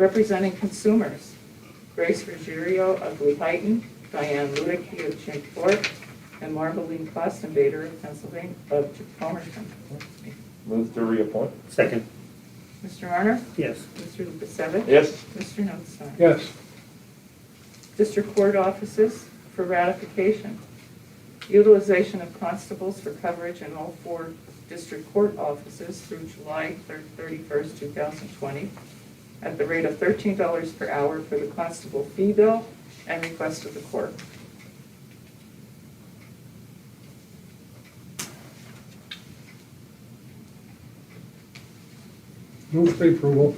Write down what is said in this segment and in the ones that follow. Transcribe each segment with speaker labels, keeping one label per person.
Speaker 1: Representing consumers, Grace Ruggiero of Blue Heighton, Diane Ludicky of Chink Fork, and Marveline Klostenbader of Pennsylvania, of Palmerton.
Speaker 2: Move to reappoint?
Speaker 3: Second,
Speaker 1: Mr. Honor?
Speaker 3: yes.
Speaker 1: Mr. Lukasevich?
Speaker 2: Yes.
Speaker 1: Mr. Notstein?
Speaker 4: yes,
Speaker 1: District Court Offices for ratification. Utilization of constables for coverage in all four district court offices through July thir- 31st, 2020, at the rate of $13 per hour for the constable fee bill and request of the court.
Speaker 4: move for approval,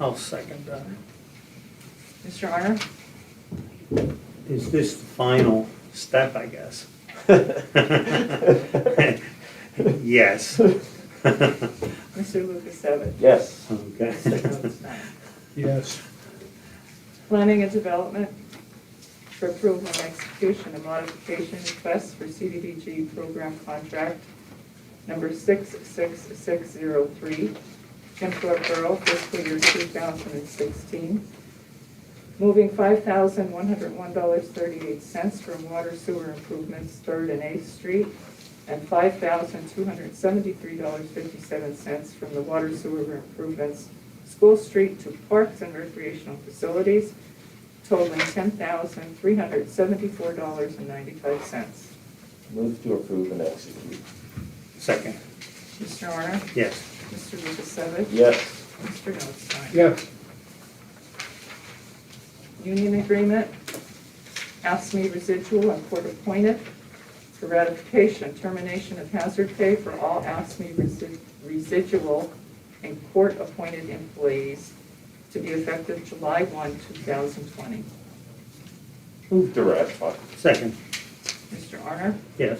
Speaker 3: I'll second that.
Speaker 1: Mr. Honor?
Speaker 3: Is this the final step, I guess? Yes.
Speaker 1: Mr. Lukasevich?
Speaker 2: Yes.
Speaker 3: Okay.
Speaker 1: Mr. Notstein?
Speaker 4: yes,
Speaker 1: Planning and Development for approval and execution of modification requests for CDBG program contract number 66603, Kempthorpe Borough, fiscal year 2016. Moving $5,101.38 from water sewer improvements, 3rd and 8th Street, and $5,273.57 from the water sewer improvements, School Street to parks and recreational facilities, totaling $10,374.95.
Speaker 2: Move to approve and execute?
Speaker 3: Second,
Speaker 1: Mr. Honor?
Speaker 3: yes.
Speaker 1: Mr. Lukasevich?
Speaker 2: Yes.
Speaker 1: Mr. Notstein?
Speaker 4: yes,
Speaker 1: Union Agreement, ASME residual and court appointed for ratification, termination of hazard pay for all ASME resi- residual and court appointed employees to be effective July 1, 2020.
Speaker 2: Move to ratify?
Speaker 3: Second,
Speaker 1: Mr. Honor?
Speaker 3: yes.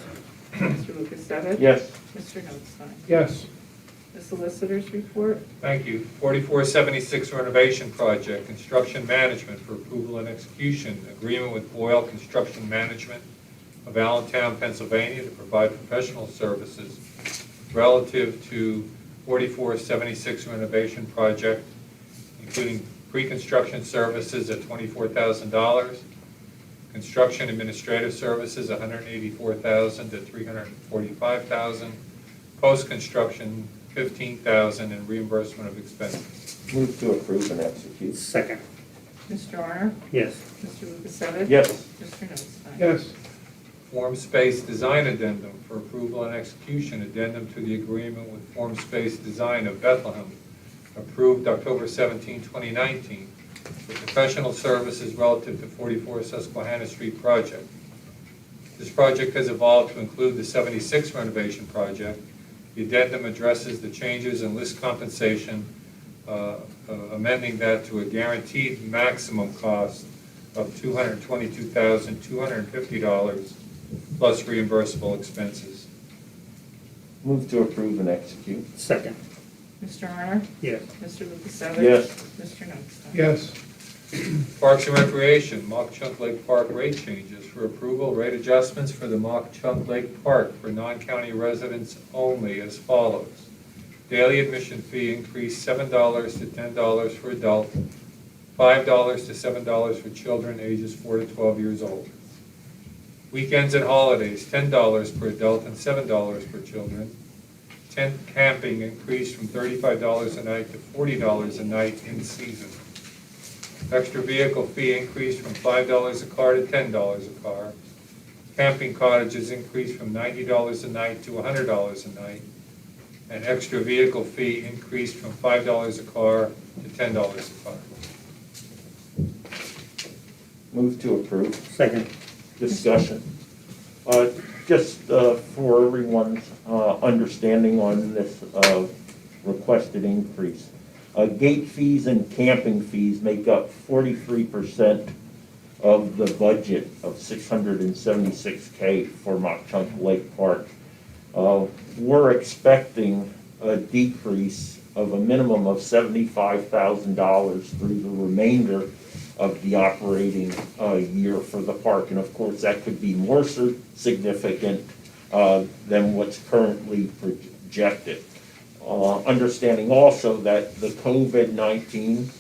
Speaker 1: Mr. Lukasevich?
Speaker 2: Yes.
Speaker 1: Mr. Notstein?
Speaker 4: yes.
Speaker 1: The Solicitor's Report,
Speaker 5: Thank you. 4476 renovation project, construction management for approval and execution, agreement with Boyle Construction Management of Allentown, Pennsylvania to provide professional services relative to 4476 renovation project, including pre-construction services at $24,000, construction administrative services, $184,000 to $345,000, post-construction, $15,000, and reimbursement of expenses.
Speaker 2: Move to approve and execute?
Speaker 3: Second,
Speaker 1: Mr. Honor?
Speaker 3: yes.
Speaker 1: Mr. Lukasevich?
Speaker 2: Yes.
Speaker 1: Mr. Notstein?
Speaker 4: Yes,
Speaker 5: Form Space Design Addendum for approval and execution, addendum to the agreement with Form Space Design of Bethlehem, approved October 17, 2019, for professional services relative to 44 Susquehanna Street project. This project has evolved to include the 76 renovation project. The addendum addresses the changes in list compensation, uh, uh, amending that to a guaranteed maximum cost of $222,250 plus reimbursable expenses.
Speaker 2: Move to approve and execute?
Speaker 3: Second,
Speaker 1: Mr. Honor?
Speaker 3: yes.
Speaker 1: Mr. Lukasevich?
Speaker 2: Yes.
Speaker 1: Mr. Notstein?
Speaker 4: yes,
Speaker 5: Parks and Recreation, Mock Chunk Lake Park rate changes for approval, rate adjustments for the Mock Chunk Lake Park for non-county residents only as follows. Daily admission fee increased seven dollars to ten dollars for adult, five dollars to seven dollars for children ages four to twelve years old. Weekends and holidays, ten dollars per adult and seven dollars per children. Tent camping increased from thirty-five dollars a night to forty dollars a night in season. Extra vehicle fee increased from five dollars a car to ten dollars a car. Camping cottages increased from ninety dollars a night to hundred dollars a night. And extra vehicle fee increased from five dollars a car to ten dollars a car.
Speaker 2: Move to approve?
Speaker 3: Second,
Speaker 2: Discussion. Uh, Just uh, for everyone's uh, understanding on this uh, requested increase, uh, gate fees and camping fees make up 43% of the budget of 676K for Mock Chunk Lake Park. Uh, We're expecting a decrease of a minimum of $75,000 through the remainder of the operating uh, year for the park. And of course, that could be more sig- significant uh, than what's currently projected. Uh, Understanding also that the COVID-19